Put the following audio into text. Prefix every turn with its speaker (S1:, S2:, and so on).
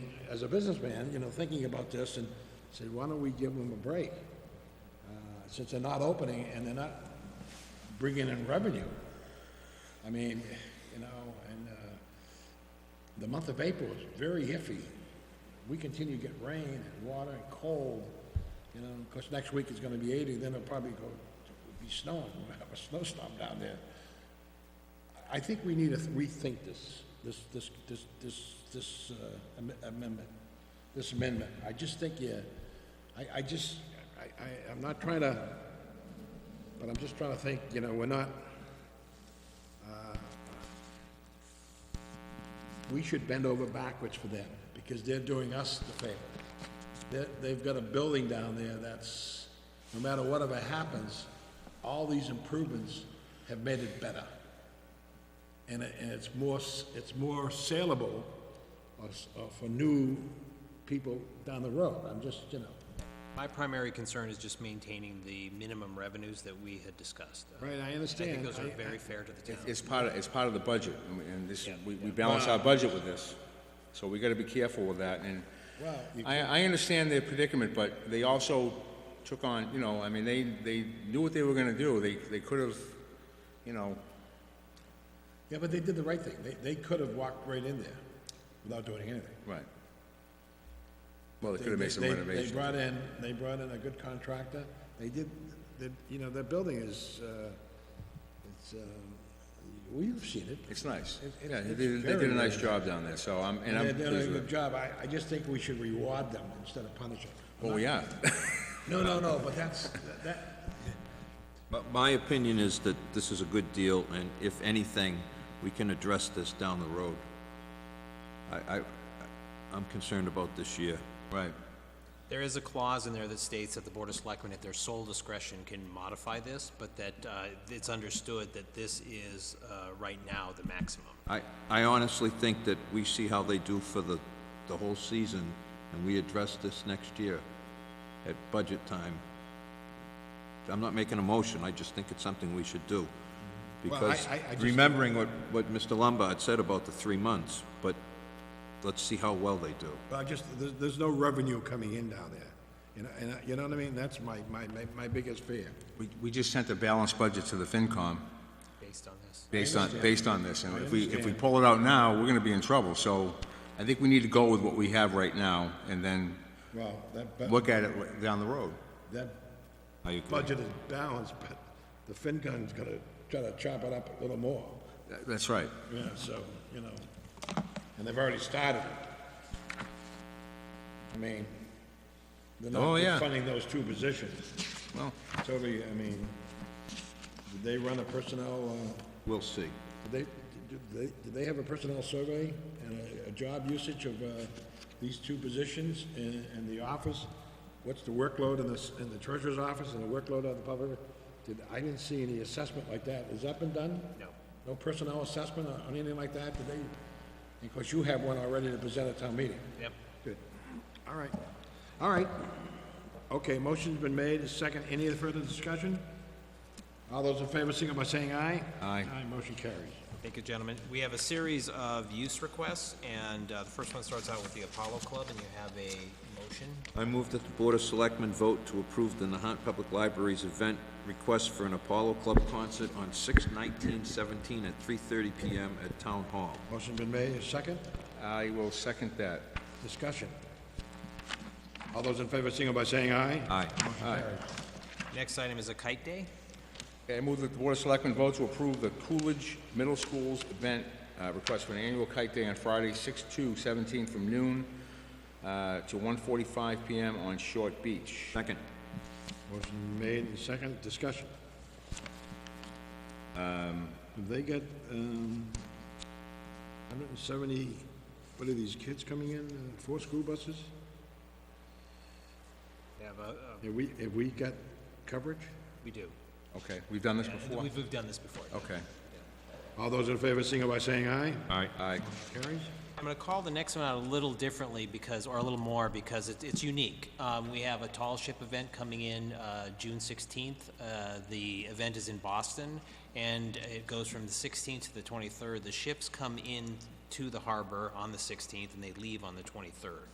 S1: as a businessman, you know, thinking about this and said, why don't we give them a break? Uh, Since they're not opening and they're not bringing in revenue. I mean, you know, and, uh, the month of April is very iffy. We continue to get rain and water and cold, you know, of course, next week it's gonna be eighty, then it'll probably go, be snowing, we'll have a snowstorm down there. I think we need to rethink this, this, this, this, this, this uh, am- amendment, this amendment. I just think, yeah, I, I just, I, I, I'm not trying to, but I'm just trying to think, you know, we're not, uh, we should bend over backwards for them, because they're doing us the favor. They're, they've got a building down there that's, no matter whatever happens, all these improvements have made it better and it, and it's more, s- it's more saleable or s- or for new people down the road, I'm just, you know,
S2: My primary concern is just maintaining the minimum revenues that we had discussed. Uh,
S1: right, I
S2: I
S1: understand.
S2: think those are
S1: I-
S2: very fair to the town.
S3: It's part of, it's part of the budget, and we- and this, we we balance our budget with this, so we gotta be careful with that, and
S1: Well, you-
S3: I, I understand their predicament, but they also took on, you know, I mean, they, they knew what they were gonna do, they, they could've, you know,
S1: Yeah, but they did the right thing, they, they could have walked right in there without doing anything.
S3: right. Well, they
S1: They-
S3: could've made some
S1: they- they- They
S3: renovations.
S1: brought in, they brought in a good contractor, they did, they, you know, that building is, uh, it's, um, well, you've seen it.
S3: It's nice,
S1: It- it-
S3: yeah, they
S1: it's
S3: did, they
S1: very
S3: did a nice
S1: nice.
S3: job down there, so I'm, and I'm
S1: They're doing a
S3: pleased with
S1: good
S3: it.
S1: job, I, I just think we should reward them instead of punish them.
S3: Oh, yeah,
S1: No, no, no, but that's, that,
S4: But my opinion is that this is a good deal, and if anything, we can address this down the road. I, I, I'm concerned about this year.
S3: right,
S2: There is a clause in there that states that the Board of Selectmen, at their sole discretion, can modify this, but that uh, it's understood that this is, uh, right now, the maximum.
S4: I, I honestly think that we see how they do for the, the whole season, and we address this next year at budget time. I'm not making a motion, I just think it's something we should do. Because
S1: I- I- I just-
S4: remembering what, what Mr. Lombard said about the three months, but let's see how well they do.
S1: Well, I just, there's, there's no revenue coming in down there, you know, and, I- you know what I mean? That's my, my, my- my biggest fear.
S3: we, we just sent a balanced budget to the FinCom,
S2: based on this.
S3: based on, based on this, and if we, if we pull it out now, we're gonna be in trouble, so I think we need to go with what we have right now, and then
S1: Well, that, bu-
S3: look at it down the road.
S4: I agree.
S1: that budget is balanced, but the FinCon's gonna try to chop it up a little more,
S3: That- That's right.
S1: yeah, so, you know, and they've already started it. I mean, they're
S3: Oh,
S1: not
S3: yeah.
S1: they're funding those two positions.
S3: Well,
S1: It's over, I mean, did they run a personnel, uh,
S4: We'll see.
S1: Did they, did they, did they have a personnel survey and a, a job usage of, uh, these two positions in, in the office? What's the workload in the, s- in the treasurer's office and the workload of the public? Did, I didn't see any assessment like that. Has that been done?
S2: No.
S1: No personnel assessment or anything like that? Did they, of course, you have one already to present at town meeting.
S2: Yep.
S1: Good. All right. All right. Okay, motion's been made, Is second. Any further discussion? All those in favor, signal by saying aye.
S3: Aye.
S1: Aye, motion carries.
S2: Thank you, gentlemen. We have a series of use requests, and uh, the first one starts out with the Apollo Club, and you have a motion.
S4: I move that the Board of Selectmen vote to approve the Nahant Public Library's event request for an Apollo Club concert on 6/19/17 at 3:30 PM at Town Hall.
S1: Motion been made, a second,
S3: I will second that.
S1: discussion. All those in favor, signal by saying aye.
S4: Aye.
S2: Next item is a kite day.
S3: Okay, I move that the Board of Selectmen vote to approve the Coolidge Middle School's event uh, request for an annual kite day on Friday, 6/2/17 from noon uh, to 1:45 PM on Short Beach.
S4: Second.
S1: Motion made, and second, discussion. Have they got, um, hundred and seventy, what are these kids coming in, uh, four school buses?
S2: We have a, a- uh,
S1: Have we, have we got coverage?
S2: we do.
S3: Okay, we've done this
S2: And
S3: before?
S2: We've, we've done this before.
S3: Okay.
S1: All those in favor, signal by saying aye.
S3: Aye. Aye.
S1: Carries?
S2: I'm gonna call the next one out a little differently because, or a little more, because it's, it's unique. Um, we have a tall ship event coming in, uh, June sixteenth. Uh, the event is in Boston, and it goes from the sixteenth to the twenty-third. The ships come in to the harbor on the sixteenth, and they leave on the twenty-third.